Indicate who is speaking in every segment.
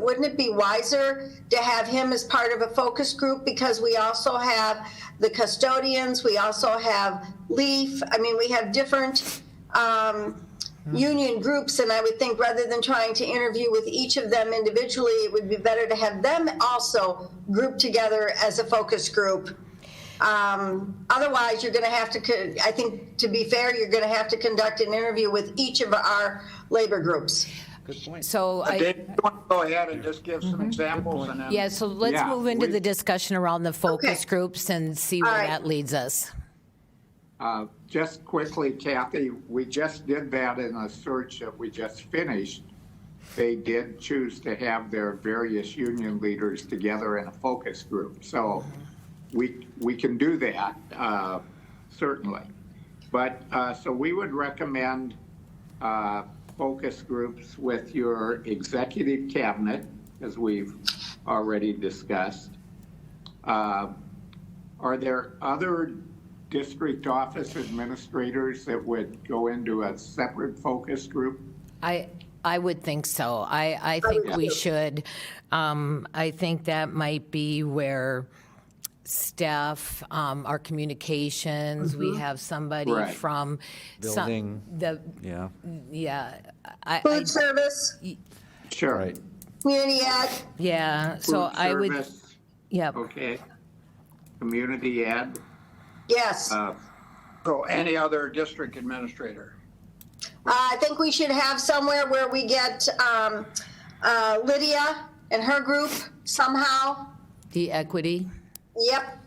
Speaker 1: wouldn't it be wiser to have him as part of a focus group? Because we also have the custodians, we also have LEAF. I mean, we have different um, union groups, and I would think rather than trying to interview with each of them individually, it would be better to have them also grouped together as a focus group. Um, Otherwise, you're going to have to, co- I think, to be fair, you're going to have to conduct an interview with each of our labor groups.
Speaker 2: Good point.
Speaker 3: So I,
Speaker 4: Dave, you want to go ahead and just give some examples and then?
Speaker 3: yeah, so let's
Speaker 4: um, Yeah,
Speaker 3: move into
Speaker 4: we-
Speaker 3: the discussion around the focus
Speaker 1: Okay.
Speaker 3: groups and see where
Speaker 1: right.
Speaker 3: that leads us.
Speaker 4: Uh, Just quickly, Kathy, we just did that in a search that we just finished. They did choose to have their various union leaders together in a focus group. So we, we can do that, uh, certainly. But, uh, so we would recommend uh, focus groups with your executive cabinet, as we've already discussed. Uh, Are there other district office administrators that would go into a separate focus group?
Speaker 3: I, I would think so. I, I think we should. Um, I think that might be where staff, um, our communications, we
Speaker 1: Mm-hmm.
Speaker 3: have somebody
Speaker 4: Right.
Speaker 3: from. some-
Speaker 2: Building.
Speaker 3: The,
Speaker 2: Yeah,
Speaker 3: yeah, I, I,
Speaker 1: Food service,
Speaker 4: Sure.
Speaker 2: right.
Speaker 1: community ed,
Speaker 3: yeah, so
Speaker 4: Food
Speaker 3: I would,
Speaker 4: service,
Speaker 3: yeah.
Speaker 4: Okay. Community ed.
Speaker 1: yes.
Speaker 4: uh,
Speaker 5: So any other district administrator?
Speaker 1: Uh, I think we should have somewhere where we get um, uh, Lydia and her group somehow.
Speaker 3: The equity,
Speaker 1: Yep.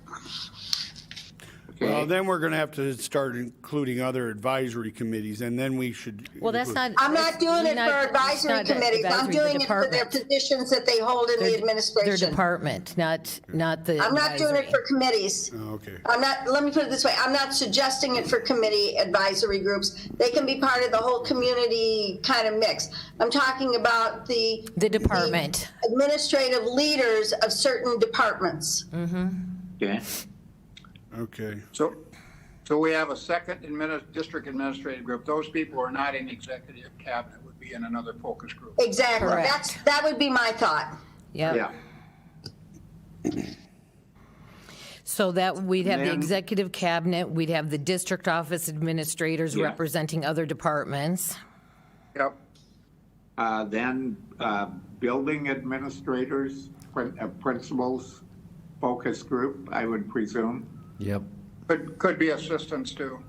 Speaker 6: Well,
Speaker 4: Okay.
Speaker 6: then we're going to have to start including other advisory committees, and then we should.
Speaker 3: well, that's not.
Speaker 1: I'm not doing it
Speaker 3: not-
Speaker 1: for
Speaker 3: it's
Speaker 1: advisory
Speaker 3: not the
Speaker 1: committees. I'm
Speaker 3: advisory, the
Speaker 1: doing it for their
Speaker 3: department.
Speaker 1: positions that they hold in the
Speaker 3: Their
Speaker 1: administration.
Speaker 3: department, not, not the
Speaker 1: I'm not doing it
Speaker 3: advisory.
Speaker 1: for committees.
Speaker 6: Oh, Okay.
Speaker 1: I'm not, let me put it this way, I'm not suggesting it for committee advisory groups. They can be part of the whole community kind of mix. I'm talking about the.
Speaker 3: The department.
Speaker 1: the Administrative leaders of certain departments.
Speaker 4: Okay.
Speaker 6: Okay.
Speaker 5: So, so we have a second admini- district administrative group. Those people who are not in executive cabinet would be in another focus group.
Speaker 1: Exactly.
Speaker 3: Correct.
Speaker 1: That's, that would be my thought.
Speaker 3: Yeah,
Speaker 4: Yeah.
Speaker 3: so that we'd have the
Speaker 4: Ma'am?
Speaker 3: executive cabinet, we'd have the district office administrators
Speaker 4: Yeah.
Speaker 3: representing other departments.
Speaker 5: Yep.
Speaker 4: Uh, Then uh, building administrators, prin- uh, principals, focus group, I would presume.
Speaker 2: Yep.
Speaker 5: Could, could be assistants too.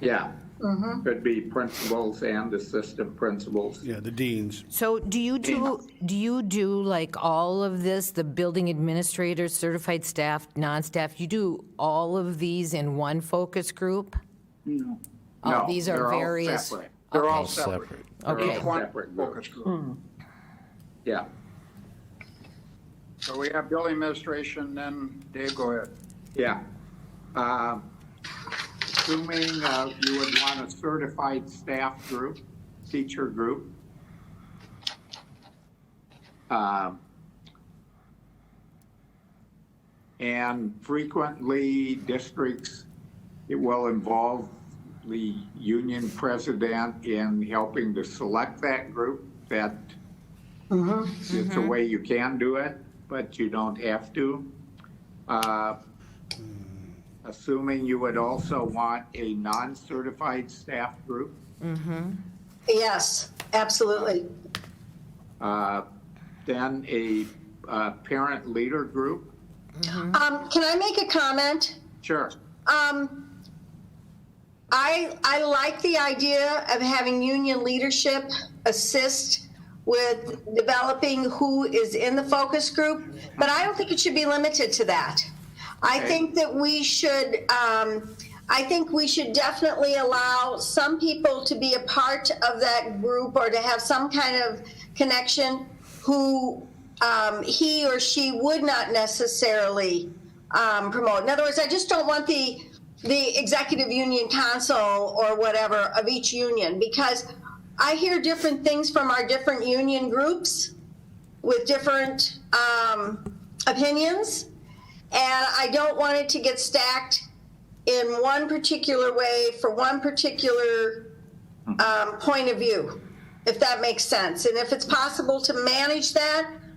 Speaker 4: Yeah.
Speaker 3: Mm-hmm.
Speaker 4: Could be principals and assistant principals.
Speaker 6: Yeah, the deans.
Speaker 3: So do you do, do you do like all of this, the building administrators, certified staff, non-staff? You do all of these in one focus group?
Speaker 4: No,
Speaker 3: Oh, these are
Speaker 4: they're all
Speaker 3: various.
Speaker 4: separate.
Speaker 5: They're all
Speaker 3: Okay.
Speaker 5: separate.
Speaker 2: Separate.
Speaker 3: Okay.
Speaker 5: Each one
Speaker 4: Separate group.
Speaker 5: focus group.
Speaker 4: Yeah.
Speaker 5: So we have building administration, then Dave, go ahead.
Speaker 4: Yeah. Uh, Assuming uh, you would want a certified staff group, teacher group. Um, And frequently, districts, it will involve the union president in helping to select that group. That it's a way you can do it, but you don't have to. Uh, Assuming you would also want a non-certified staff group,
Speaker 1: Yes, absolutely.
Speaker 4: uh, then a uh, parent leader group?
Speaker 1: Um, can I make a comment?
Speaker 4: Sure.
Speaker 1: Um, I, I like the idea of having union leadership assist with developing who is in the focus group, but I don't think it should be limited to that. I think that we should, um, I think we should definitely allow some people to be a part of that group or to have some kind of connection who um, he or she would not necessarily um, promote. In other words, I just don't want the the executive union council or whatever of each union because I hear different things from our different union groups with different um, opinions, and I don't want it to get stacked in one particular way for one particular um, point of view, if that makes sense. And if it's possible to manage that